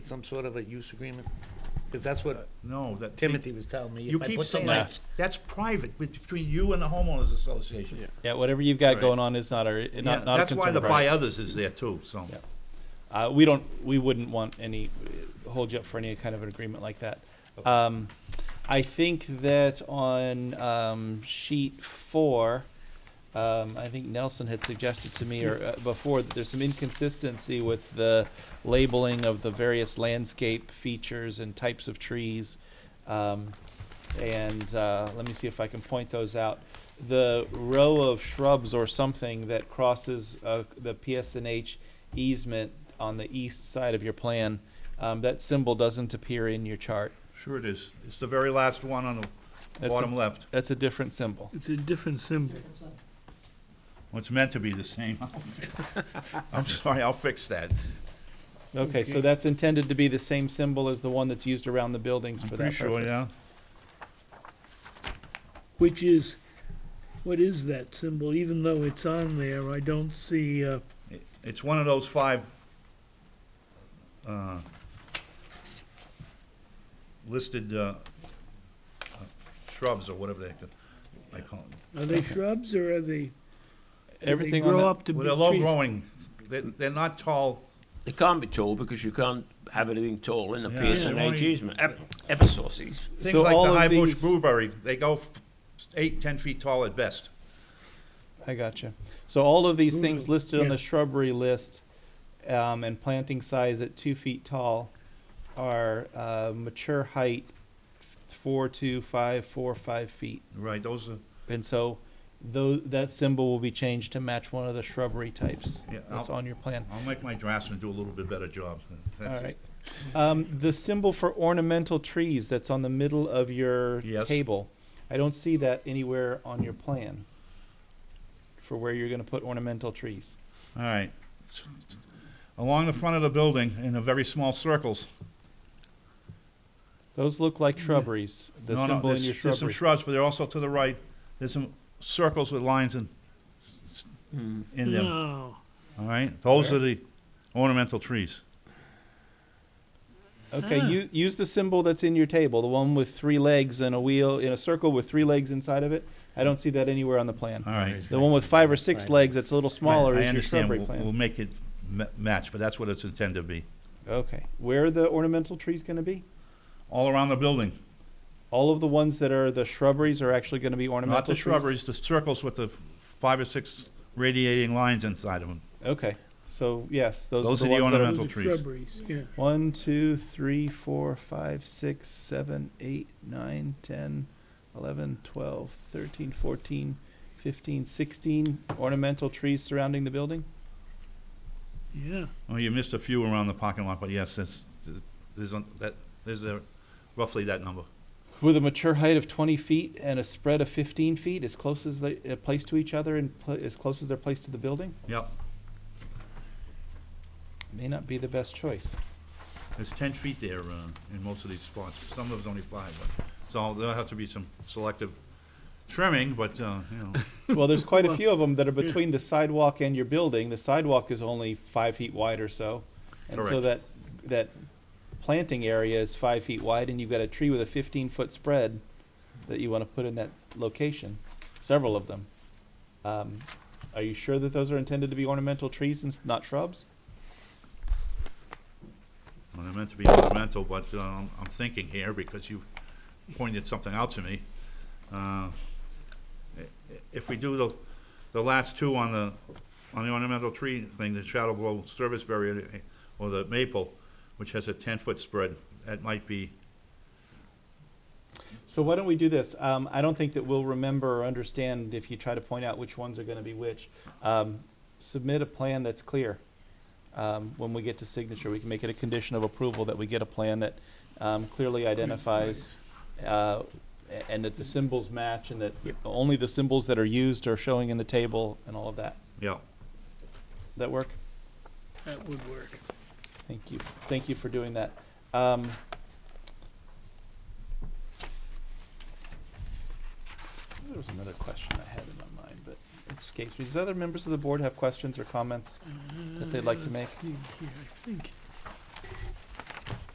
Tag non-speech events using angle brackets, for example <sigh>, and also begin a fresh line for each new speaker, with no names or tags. some sort of a use agreement? Because that's what
No, that. see,
Timothy was telling me.
You
If I
keep
put
saying
something
that, that's private, with- between you and the homeowners association.
Yeah, whatever you've got
Right.
going on is not our,
Yeah,
not, not a
That's why
concern
the
of
by
ours.
others is there too, so.
Yeah. Uh, we don't, we wouldn't want any, hold you up for any kind of an agreement like that. Um, I think that on, um, sheet four, um, I think Nelson had suggested to me or uh, before that there's some inconsistency with the labeling of the various landscape features and types of trees. Um, and uh, let me see if I can point those out. The row of shrubs or something that crosses uh, the PSNH easement on the east side of your plan, um, that symbol doesn't appear in your chart.
Sure it is. It's the very last one on the
That's a-
bottom left.
That's a different symbol.
It's a different symbol.
Well, It's meant to be the same. <laughs> I'll fi- I'm sorry, I'll fix that.
Okay, so that's intended to be the same symbol as the one that's used around the buildings
I'm
for
pretty
that
sure, yeah.
purpose.
Which is, what is that symbol? Even though it's on there, I don't see, uh,
It- It's one of those five uh, listed uh, uh, shrubs or whatever they, I call them.
are they shrubs or are they?
Everything
They
on
grow
that,
up to be
Well, they're low
trees.
growing. They're, they're not tall.
It can't be tall because you can't have anything tall in the
Yeah.
PSNH
Yeah.
easement, ever, ever sources.
Things
So
like
all
the
of
high bush
these-
blueberry, they go f- eight, ten feet tall at best.
I got you. So all of these things
Ooh,
listed on
yeah.
the shrubbery list, um, and planting size at two feet tall are, uh, mature height f- four, two, five, four, five feet.
Right, those are,
And so tho- that symbol will be changed to match one of the shrubbery types
Yeah,
that's
I'll-
on your plan.
I'll make my draftsman do a little bit better job. That's
All right.
it.
Um, the symbol for ornamental trees that's on the middle of your
Yes.
table, I don't see that anywhere on your plan for where you're gonna put ornamental trees.
All right. Along the front of the building in a very small circles.
Those look like shrubberies, the
No, no,
symbol in
there's-
your
There's some
shrubbery.
shrubs, but they're also to the right. There's some circles with lines in,
Hmm.
in them,
No,
all right? Those
Where?
are the ornamental trees.
Okay,
Ah.
you, use the symbol that's in your table, the one with three legs and a wheel, in a circle with three legs inside of it. I don't see that anywhere on the
All
plan.
right.
The one with five or six
Right.
legs that's a little smaller
I
is your
understand.
shrubbery
We'll, we'll
plan.
make it ma- match, but that's what it's intended to be.
Okay, where are the ornamental trees gonna be?
All around the building,
All of the ones that are the shrubberies are actually gonna be ornamental
not the
trees?
shrubberies, the circles with the five or six radiating lines inside of them.
Okay, so yes, those,
Those
are the,
are the
ones that
those
ornamental-
are
are
trees.
shrubberies, yeah.
one, two, three, four, five, six, seven, eight, nine, ten, eleven, twelve, thirteen, fourteen, fifteen, sixteen ornamental trees surrounding the building.
Yeah,
Oh, you missed a few around the parking lot, but yes, that's, there's, a- that, there's a, roughly that number.
With a mature height of 20 feet and a spread of 15 feet, as close as they uh, placed to each other and pla as close as they're placed to the building,
Yep,
may not be the best choice.
there's ten feet there, uh, in most of these spots, some of them's only five, but, so there'll have to be some selective trimming, but, uh, you know,
Well, there's quite a
Well,
few of them that are between the sidewalk and your building. The sidewalk is only five feet wide or so. And so that, that planting area is five feet wide and you've got a tree with a fifteen foot spread that you want to put in that location, several of them. Um, are you sure that those are intended to be ornamental trees and s- not shrubs?
when I meant to be ornamental, but, um, I'm thinking here because you pointed something out to me. Uh, i- If we do the, the last two on the, on the ornamental tree thing, the shadow blow service berry eh, or the maple, which has a ten-foot spread, that might be
So why don't we do this? Um, I don't think that we'll remember or understand if you try to point out which ones are going to be which. Um, submit a plan that's clear. Um, when we get to signature, we can make it a condition of approval that we get a plan that um, clearly identifies uh, a- and that the symbols match and that only the symbols that are used are showing in the table and all of that.
Yeah,
That work?
that would work.
Thank you. Thank you for doing that. Um, there was another question I had in my mind, but it escapes me. Does other members of the board have questions or comments that they'd like to make?
Let's see here, I think,